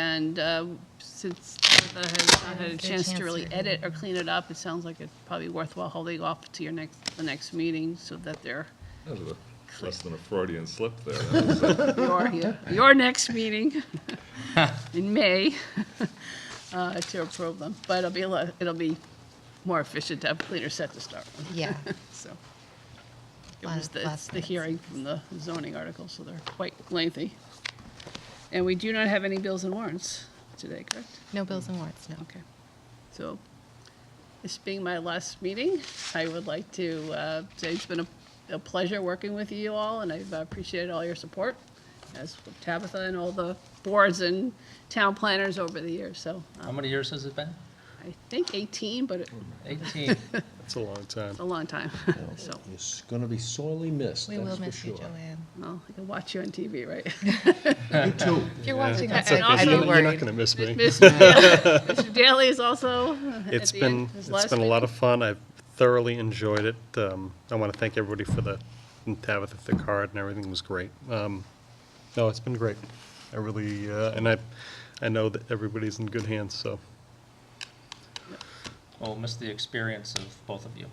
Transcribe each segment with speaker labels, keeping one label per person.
Speaker 1: And uh, since Tabitha has not had a chance to really edit or clean it up, it sounds like it's probably worthwhile holding off to your next, the next meeting so that they're,
Speaker 2: That was a- Less than a Freudian slip there. That was-
Speaker 1: your, your next meeting in May uh, to approve them. But it'll be, a lot- it'll be more efficient to have a cleaner set to start with,
Speaker 3: Yeah,
Speaker 1: so. It
Speaker 3: Lot
Speaker 1: was
Speaker 3: of
Speaker 1: the, it's
Speaker 3: last
Speaker 1: the
Speaker 3: minute
Speaker 1: hearing from the zoning article, so they're quite lengthy. And we do not have any bills and warrants today, correct?
Speaker 3: no bills and warrants, no.
Speaker 1: Okay. So, this being my last meeting, I would like to uh, say it's been a- a pleasure working with you all, and I've appreciated all your support, as with Tabitha and all the boards and town planners over the years. So,
Speaker 4: How
Speaker 1: um,
Speaker 4: many years has it been?
Speaker 1: I think 18, but it's
Speaker 4: 18.
Speaker 5: It's a long time.
Speaker 1: a long time, so.
Speaker 6: You're going to be sorely missed,
Speaker 3: We will
Speaker 6: that's for
Speaker 3: miss you,
Speaker 6: sure.
Speaker 3: Joanne.
Speaker 1: Well, I can watch you on TV, right?
Speaker 6: You too.
Speaker 3: If you're watching
Speaker 1: That's
Speaker 3: us,
Speaker 1: okay.
Speaker 3: I'd
Speaker 1: You're not
Speaker 3: be
Speaker 5: You're not
Speaker 3: worried.
Speaker 5: going to miss me.
Speaker 1: Mr. Daly- Mr. Daly is also uh, at
Speaker 5: It's
Speaker 1: the end.
Speaker 5: been,
Speaker 1: His
Speaker 5: it's
Speaker 1: last
Speaker 5: been a
Speaker 1: meeting.
Speaker 5: lot of fun. I've thoroughly enjoyed it. Um, I want to thank everybody for the, and Tabitha, for the card and everything was great. Um, No, it's been great. I really, uh, and I, I know that everybody's in good hands, so.
Speaker 4: Well, miss the experience of both of you.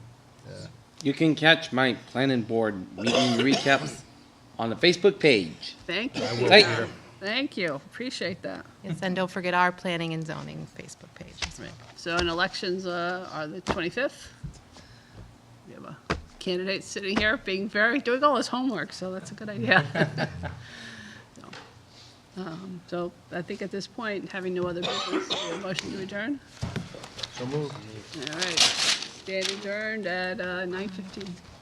Speaker 7: You can catch my planning board meeting recaps on the Facebook page.
Speaker 1: Thank you.
Speaker 7: Thank
Speaker 1: Peter. Thank you. Appreciate that.
Speaker 3: Yes, and don't forget our planning and zoning Facebook page as well.
Speaker 1: Right, so and elections uh, are the 25th. We have a candidate sitting here being very, doing all his homework, so that's a good idea. So, um, So I think at this point, having no other business, we have a motion to adjourn?
Speaker 6: So moved.
Speaker 1: All right, stand adjourned at uh, 9:15.